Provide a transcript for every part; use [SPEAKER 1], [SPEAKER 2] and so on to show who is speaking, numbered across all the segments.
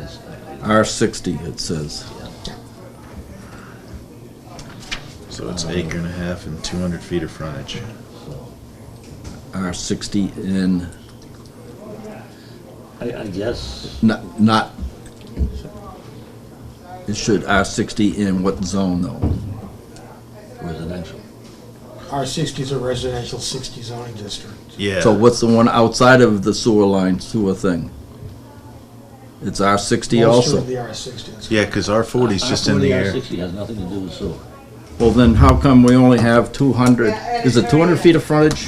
[SPEAKER 1] just, I- I-
[SPEAKER 2] R sixty, it says.
[SPEAKER 3] So it's acre and a half and 200 feet of frontage.
[SPEAKER 1] so,
[SPEAKER 2] R sixty in,
[SPEAKER 1] I, I guess,
[SPEAKER 2] not, not, it should, R sixty in what zone though?
[SPEAKER 1] residential.
[SPEAKER 4] R sixty is a residential sixty zoning district.
[SPEAKER 3] Yeah.
[SPEAKER 2] So what's the one outside of the sewer line sewer thing? It's R sixty
[SPEAKER 4] Most
[SPEAKER 2] also.
[SPEAKER 4] of the R sixty.
[SPEAKER 3] Yeah, because R40
[SPEAKER 1] Uh,
[SPEAKER 3] is just in the
[SPEAKER 1] R40,
[SPEAKER 3] air.
[SPEAKER 1] R60 has nothing to do with sewer,
[SPEAKER 2] Well, then how come we only have two hundred,
[SPEAKER 5] Yeah,
[SPEAKER 2] is it two hundred feet of frontage?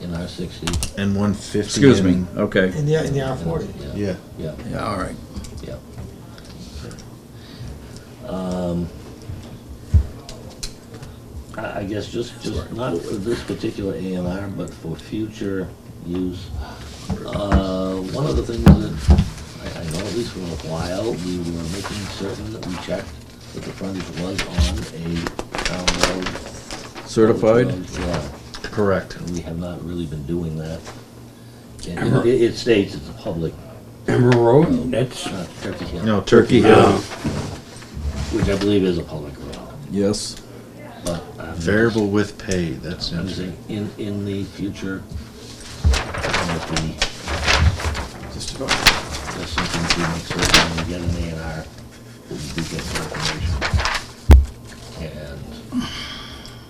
[SPEAKER 1] in R60.
[SPEAKER 3] And 150.
[SPEAKER 2] Excuse me,
[SPEAKER 3] and-
[SPEAKER 2] okay.
[SPEAKER 4] In the, in the R forty.
[SPEAKER 1] Yeah,
[SPEAKER 3] Yeah.
[SPEAKER 1] yeah.
[SPEAKER 2] Yeah, all right.
[SPEAKER 1] Um, I I guess just, just not for this particular A and R, but for future use. Uh, One of the things that, I- I know at least for a while, we were making certain that we checked that the frontage was on a town road.
[SPEAKER 2] Certified?
[SPEAKER 1] Yeah,
[SPEAKER 3] Correct.
[SPEAKER 1] and we have not really been doing that. And It it states it's a public,
[SPEAKER 6] Emerald Road, that's,
[SPEAKER 1] uh, Turkey Hill,
[SPEAKER 3] No, Turkey Hill.
[SPEAKER 1] which I believe is a public road,
[SPEAKER 2] Yes.
[SPEAKER 1] but. I'm-
[SPEAKER 3] Variable with pay. That's
[SPEAKER 1] I'm just
[SPEAKER 3] interesting.
[SPEAKER 1] saying, in, in the future, if we,
[SPEAKER 4] Just about.
[SPEAKER 1] there's something to make certain when we get an A and R, we do get some information. And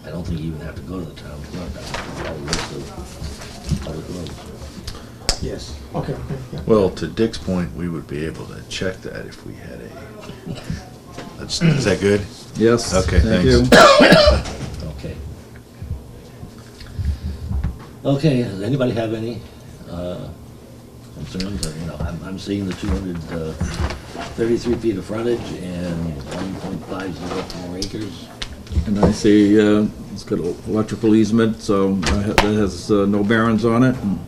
[SPEAKER 1] I don't think you even have to go to the town clerk, I think we have a list of public roads.
[SPEAKER 4] Yes, okay, yeah.
[SPEAKER 3] Well, to Dick's point, we would be able to check that if we had a. That's, is that good?
[SPEAKER 2] Yes.
[SPEAKER 3] Okay,
[SPEAKER 2] thank
[SPEAKER 3] thanks.
[SPEAKER 2] you.
[SPEAKER 1] Okay. Okay, does anybody have any, uh, concerns, or, you know, I'm, I'm seeing the two hundred, uh, thirty-three feet of frontage and one point five zero four acres.
[SPEAKER 2] And I see, uh, it's got electrical easement, so I ha- that has uh, no bearings on it. and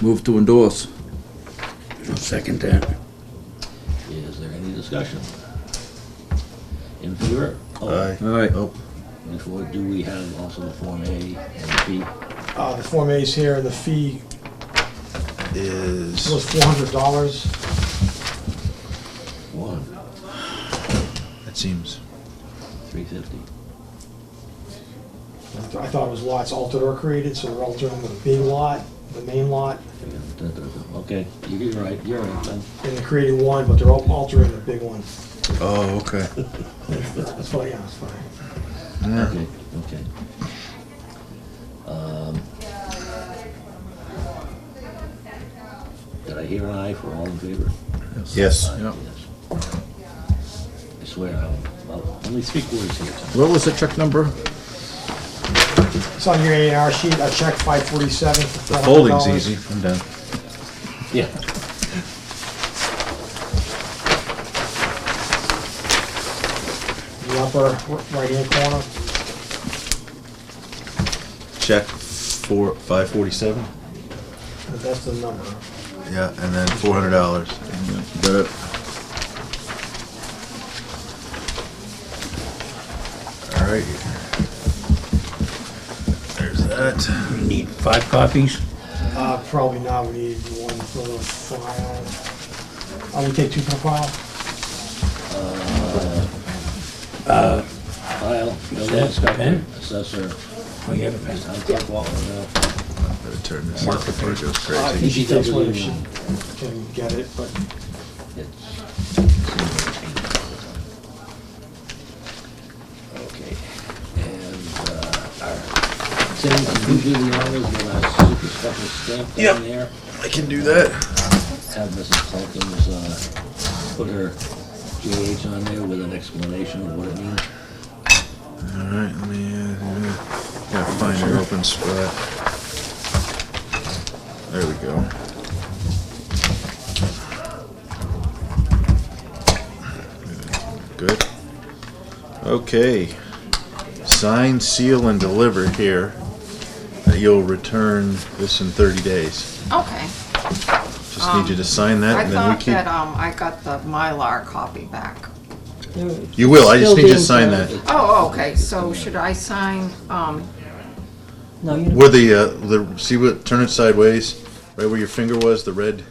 [SPEAKER 2] Move to endorse.
[SPEAKER 6] I'll second that.
[SPEAKER 1] Is there any discussion? In favor?
[SPEAKER 3] Aye.
[SPEAKER 2] All right.
[SPEAKER 3] Oh,
[SPEAKER 1] Before, do we have also the Form A and B?
[SPEAKER 4] Uh, the Form A's here, the fee was
[SPEAKER 3] is,
[SPEAKER 4] four hundred dollars.
[SPEAKER 1] One,
[SPEAKER 3] it seems,
[SPEAKER 1] three fifty.
[SPEAKER 4] I thought it was lots altered or created, so we're altering the big lot, the main lot,
[SPEAKER 1] Okay, you- you're right, you're right, Ben.
[SPEAKER 4] and they're creating one, but they're all altering the big one.
[SPEAKER 3] oh, okay.
[SPEAKER 4] That's fine, yeah, that's fine.
[SPEAKER 3] Yeah.
[SPEAKER 1] Okay, okay. Um, Did I hear an aye for all in favor?
[SPEAKER 3] Yes.
[SPEAKER 1] Aye,
[SPEAKER 2] Yep.
[SPEAKER 1] yes. I swear, I'm, well, only three quarters here tonight.
[SPEAKER 2] What was the check number?
[SPEAKER 4] It's on your A and R sheet, I checked five forty-seven.
[SPEAKER 3] The folding's easy. I'm done.
[SPEAKER 1] Yeah.
[SPEAKER 4] The upper right-hand corner,
[SPEAKER 3] Check four, 547.
[SPEAKER 4] that's the number.
[SPEAKER 3] Yeah, and then $400.
[SPEAKER 2] Got it.
[SPEAKER 3] All right. There's that.
[SPEAKER 6] We need five copies.
[SPEAKER 4] Uh, probably not, we need one for the file. I would take two per file.
[SPEAKER 1] Uh, File, building
[SPEAKER 6] That's
[SPEAKER 1] inspector,
[SPEAKER 6] Ben?
[SPEAKER 1] assessor,
[SPEAKER 6] Oh, you have a pen.
[SPEAKER 1] town clerk, Walker, now.
[SPEAKER 3] Better turn this off before it goes
[SPEAKER 4] Uh, I
[SPEAKER 3] crazy.
[SPEAKER 4] think she takes one if she
[SPEAKER 1] Easy.
[SPEAKER 4] can get it, but
[SPEAKER 1] It's- Okay, and, uh, our, Tim's usually the honors with our super special stamp
[SPEAKER 3] Yep.
[SPEAKER 1] down there.
[SPEAKER 3] I can do that.
[SPEAKER 1] Have Mrs. Calkins, uh, put her GH on there with an explanation of what it means.
[SPEAKER 3] All right, let me, uh, yeah. gotta find an open spot. There we go. Good. Okay. Sign, seal, and deliver here. that You'll return this in thirty days.
[SPEAKER 5] Okay.
[SPEAKER 3] Just need you to sign that
[SPEAKER 5] Um, I
[SPEAKER 3] and then we
[SPEAKER 5] thought
[SPEAKER 3] keep.
[SPEAKER 5] that, um, I got the Mylar copy back.
[SPEAKER 3] You will, I just
[SPEAKER 7] Still
[SPEAKER 3] need you to
[SPEAKER 7] being
[SPEAKER 3] sign
[SPEAKER 7] filed.
[SPEAKER 3] that.
[SPEAKER 5] Oh, okay, so should I sign, um,
[SPEAKER 7] No, you don't.
[SPEAKER 3] Where the, uh, the, see what, turn it sideways, right where your finger was, the red